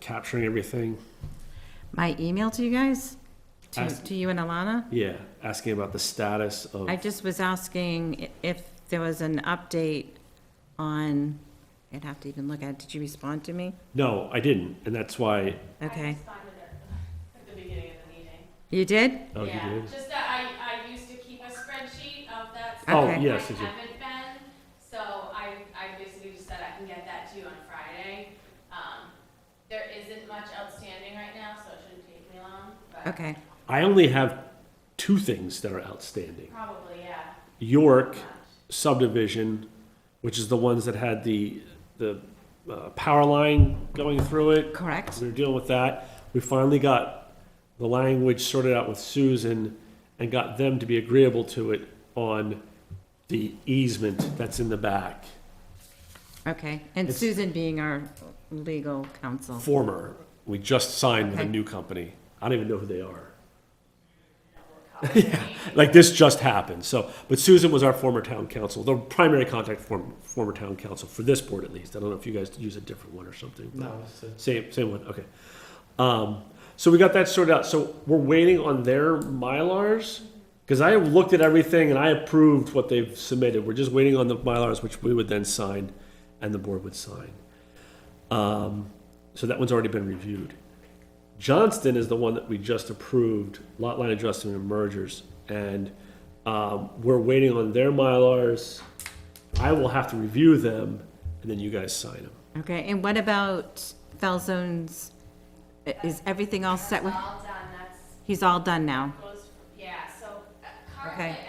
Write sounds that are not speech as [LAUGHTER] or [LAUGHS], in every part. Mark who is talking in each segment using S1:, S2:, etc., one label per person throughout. S1: capturing everything.
S2: My email to you guys, to,
S1: Ask-
S2: to you and Alana?
S1: Yeah, asking about the status of.
S2: I just was asking i- if there was an update on, I'd have to even look at, it. did you respond to me?
S1: No, I didn't, and that's why.
S3: I
S2: Okay.
S3: responded at the beginning of the meeting.
S2: You did?
S1: Oh, you
S3: Yeah,
S1: did?
S3: just that I, I used to keep a spreadsheet of that.
S2: Oh,
S3: stuff.
S1: yes,
S3: I
S1: you do.
S3: haven't been, so I, I basically just said I can get that to you on Friday. Um, there isn't much outstanding right now, so it shouldn't take me long, but
S2: Okay,
S1: I only have two things that are outstanding.
S3: probably, yeah.
S1: York
S3: much.
S1: subdivision, which is the ones that had the, the uh, power line going through it.
S2: correct?
S1: We were dealing with that. We finally got the language sorted out with Susan and got them to be agreeable to it on the easement that's in the back.
S2: Okay, and
S1: It's-
S2: Susan being our legal counsel.
S1: Former, we just signed with a
S2: Okay.
S1: new company. I don't even know who they are. Yeah, [LAUGHS] like this just happened. So, but Susan was our former town council, the primary contact form, former town council for this board at least. I don't know if you guys use a different one or something. but-
S4: No, it's a-
S1: Same, same one, okay. Um, so we got that sorted out, so we're waiting on their Mylars? Cause I looked at everything and I approved what they've submitted, we're just waiting on the Mylars, which we would then sign, and the board would sign. Um, so that one's already been reviewed. Johnston is the one that we just approved, lot line adjustment and mergers, and, um, we're waiting on their Mylars. I will have to review them, and then you guys sign them.
S2: Okay, and what about Falzone's, i- is everything all set with,
S3: That's all done, that's
S2: he's all done now?
S3: goes, yeah, so uh, currently, at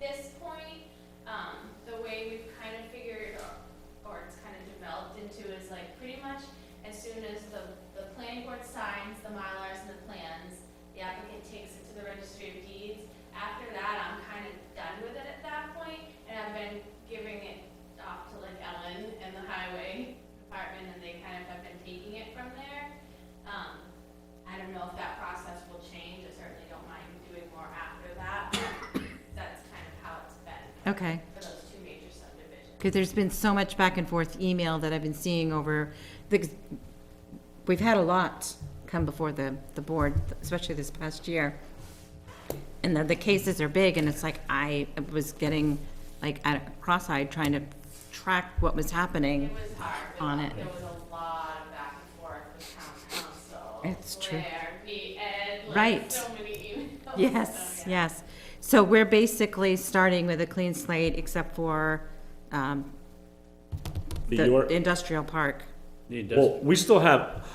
S3: this point, um, the way we've kind of figured, or- or it's kind of developed into is like, pretty much as soon as the, the planning board signs the Mylars and the plans, the applicant takes it to the registry of deeds. After that, I'm kind of done with it at that point, and I've been giving it off to like Ellen and the highway department, and they kind of have been taking it from there. Um, I don't know if that process will change, I certainly don't mind doing more after that, but that's kind of how it's been
S2: Okay,
S3: for those two major subdivisions.
S2: because there's been so much back and forth email that I've been seeing over, the we've had a lot come before the, the board, especially this past year. And the, the cases are big, and it's like, I was getting, like, at- cross-eyed trying to track what was happening.
S3: It was hard,
S2: On it.
S3: there was a lot of back and forth with town council.
S2: It's true.
S3: Blair, me, Ed, like
S2: Right.
S3: so many emails.
S2: Yes,
S3: So, yeah.
S2: yes. So we're basically starting with a clean slate except for um,
S1: The
S2: the
S1: York-
S2: industrial park.
S5: The
S1: Well,
S5: industrial,
S1: we still have,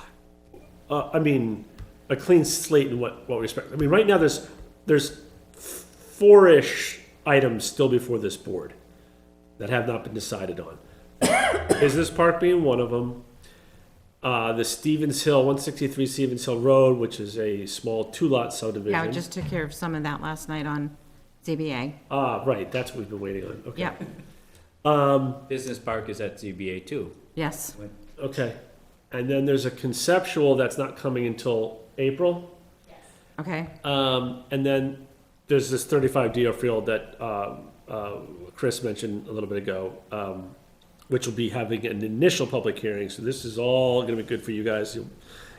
S1: uh, I mean, a clean slate in what, what respect. I mean, right now, there's, there's four-ish items still before this board that have not been decided on. [COUGHS] Business Park being one of them. Uh, the Stevens Hill, one sixty-three Stevens Hill Road, which is a small two-lot subdivision.
S2: Yeah, I just took care of some of that last night on ZBA.
S1: Ah, right, that's what we've been waiting on, okay.
S2: Yeah,
S5: business park is at ZBA too.
S2: yes.
S1: Okay. And then there's a conceptual that's not coming until April.
S2: Okay,
S1: Um, and then there's this 35 DO field that um, uh, Chris mentioned a little bit ago, um, which will be having an initial public hearing. So this is all going to be good for you guys. You'll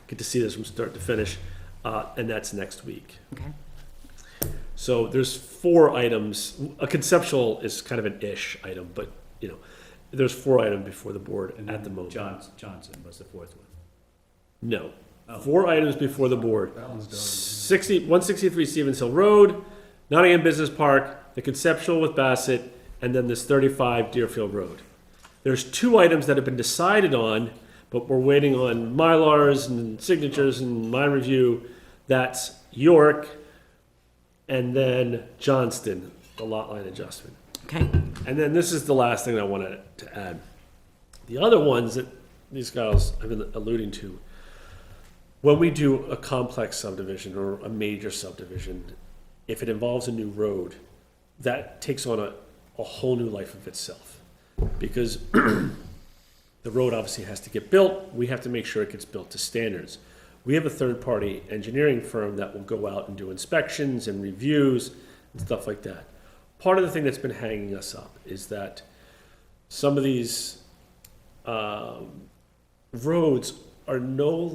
S1: get to see this from start to finish, uh, and that's next week.
S2: okay.
S1: So there's four items. A conceptual is kind of an ish item, but you know, there's four items before the board
S5: And
S1: at the
S5: then
S1: moment.
S5: Johns, Johnson was the fourth one.
S1: No.
S5: Oh.
S1: Four items before the board. Sixty, one sixty-three Stevens Hill Road, Nottingham Business Park, the conceptual with Bassett, and then this thirty-five Deerfield Road. There's two items that have been decided on, but we're waiting on Mylars and signatures and my review. That's York and then Johnston, the lot line adjustment.
S2: Okay,
S1: And then this is the last thing I wanted to add. The other ones that these guys have been alluding to, when we do a complex subdivision or a major subdivision, if it involves a new road, that takes on a, a whole new life of itself. Because the road obviously has to get built, we have to make sure it gets built to standards. We have a third-party engineering firm that will go out and do inspections and reviews and stuff like that. Part of the thing that's been hanging us up is that some of these um, roads are no